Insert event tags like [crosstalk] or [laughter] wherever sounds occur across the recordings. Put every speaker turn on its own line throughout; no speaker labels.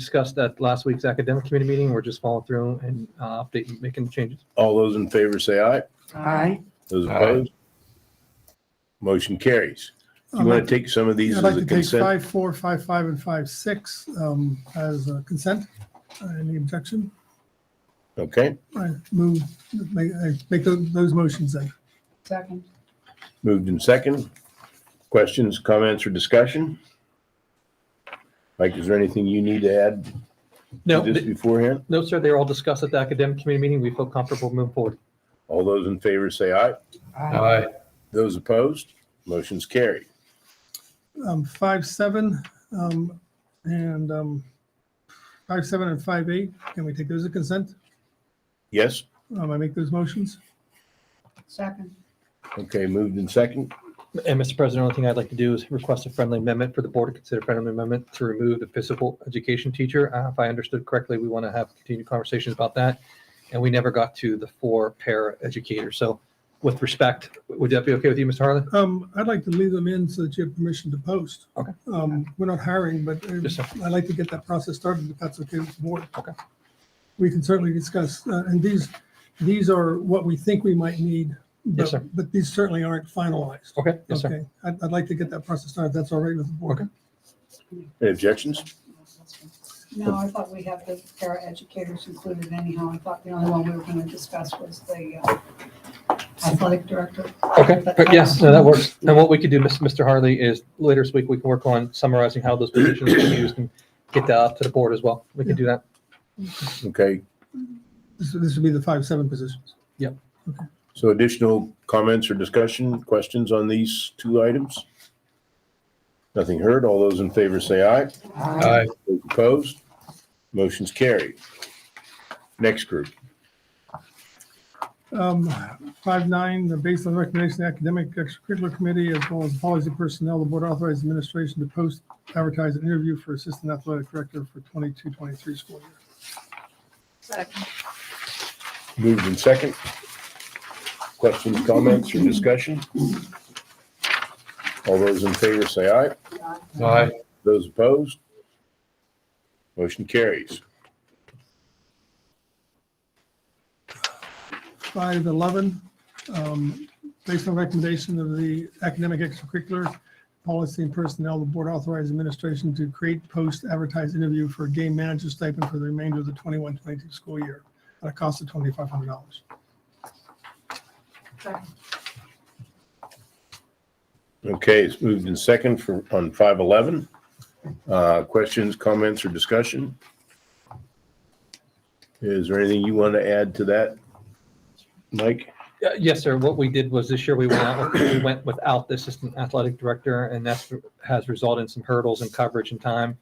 discussed at last week's academic committee meeting. We're just following through and uh, updating, making changes.
All those in favor say aye.
Aye.
Those
Aye.
opposed? Motion carries. You
I'd
want
like
to take some of these
I'd
as
like
a
to take
consent?
five, four, five, five, and five, six um, as a consent. Uh, Any objection?
Okay.
I move, make I make tho- those motions then.
Second.
Moved in second. Questions, comments, or discussion? Mike, is there anything you need to add
No,
to this
th-
beforehand?
no, sir, they were all discussed at the academic committee meeting. We feel comfortable moving forward.
All those in favor say aye.
Aye.
Those opposed? Motion's carried.
Um, Five, seven, um, and um, five, seven, and five, eight, can we take those as consent?
Yes?
Um, I make those motions?
Second.
Okay, moved in second.
And Mr. President, the only thing I'd like to do is request a friendly amendment for the board to consider friendly amendment to remove the physical education teacher. Uh, If I understood correctly, we want to have continued conversations about that. And we never got to the four para educators. So with respect, would that be okay with you, Mr. Harlan?
Um, I'd like to leave them in so that you have permission to post.
Okay.
Um, We're not hiring, but uh,
Yes, sir.
I'd like to get that process started if that's okay with the board.
Okay.
We can certainly discuss, uh, and these, these are what we think we might need.
Yes,
but-
sir.
But these certainly aren't finalized.
Okay, yes, sir.
Okay. I'd, I'd like to get that process started. if That's all right with the board.
Okay.
Any objections?
No, I thought we had the para educators included anyhow. I thought the only one we were going to discuss was the uh, athletic director.
Okay, but yes, no, that works. And what we could do, Miss- Mr. Harley, is later this week, we can work on summarizing how those positions were used and get that out to the board as well. We can do that.
Okay,
This, this would be the five, seven positions.
so additional comments or discussion, questions on these two items? Nothing heard. All those in favor say aye.
Aye.
Those opposed? Motion's carried. Next group.
Um, Five nine, uh, based on the recommendation of the Academic Extracurricular Committee as well as Policy Personnel, the Board authorized administration to post advertise an interview for Assistant Athletic Director for 22-23 school year.
Second.
Moved in second. Questions, comments, or discussion? All those in favor say aye.
Aye.
Those opposed? Motion carries.
Five eleven, um, based on recommendation of the Academic Extracurricular Policy and Personnel, the Board authorized administration to create post advertise interview for a game manager stipend for the remainder of the 21-22 school year at a cost of twenty-five hundred dollars.
Okay, it's moved in second for, on five eleven. Uh, questions, comments, or discussion? Is there anything you want to add to that? Mike?
Uh, Yes, sir. What we did was this year we went out, we went without the assistant athletic director and that's has resulted in some hurdles in coverage and time.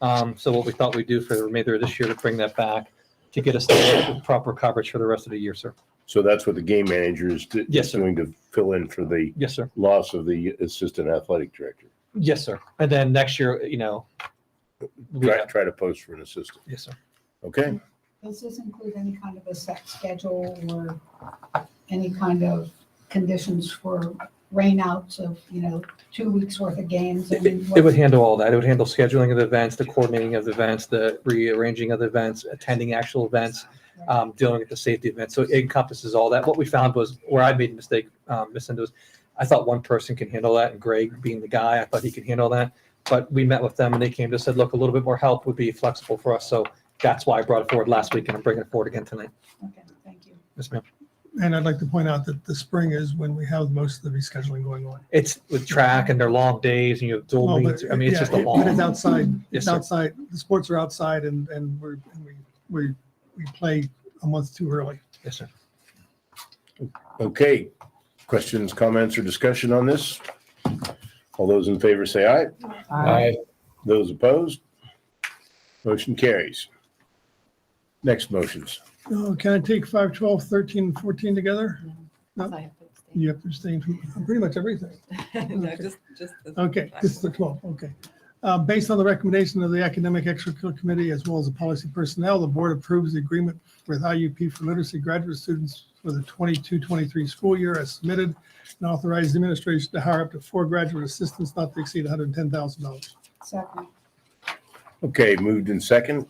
Um, so what we thought we'd do for the remainder of this year to bring that back to get us the proper coverage for the rest of the year, sir.
So that's what the game manager is do-
Yes, sir.
doing to fill in for the
Yes, sir.
loss of the assistant athletic director.
Yes, sir. And then next year, you know. we
Try,
have-
try to post for an assistant.
Yes, sir.
Okay,
Does this include any kind of a set schedule or any kind of conditions for rainouts of, you know, two weeks worth of games?
It-
and
It it would handle all that. It would handle scheduling of the events, the coordinating of the events, the rearranging of the events, attending actual events, um, dealing with the safety event. So it encompasses all that. What we found was where I made a mistake, um, Ms. Indo, is I thought one person can handle that and Greg being the guy, I thought he could handle that. But we met with them and they came to said, look, a little bit more help would be flexible for us. So that's why I brought it forward last week and I'm bringing it forward again tonight.
Okay, thank you.
Yes, ma'am.
And I'd like to point out that the spring is when we have most of the rescheduling going on.
It's with track and their long days and you have dual
Well,
meets.
but-
I mean, it's
yeah,
just a
it- But it's
long.
outside,
Yes,
it's
sir.
outside, the sports are outside and, and we're, and we, we, we play a month too early.
Yes, sir.
okay. Questions, comments, or discussion on this? All those in favor say aye.
Aye.
Those opposed? Motion carries. Next motions.
Oh, Can I take five, twelve, thirteen, and fourteen together? No.
I have to abstain.
You have to abstain from pretty much everything.
[laughs] No,
Okay.
just, just. this
Okay,
last
this is the
one.
12, okay. Uh, Based on the recommendation of the Academic Extracurricular Committee as well as the Policy Personnel, the Board approves the agreement with IUP for literacy graduate students for the 22-23 school year as submitted and authorized the administration to hire up to four graduate assistants not to exceed $110,000.
Second.
Okay, moved in second.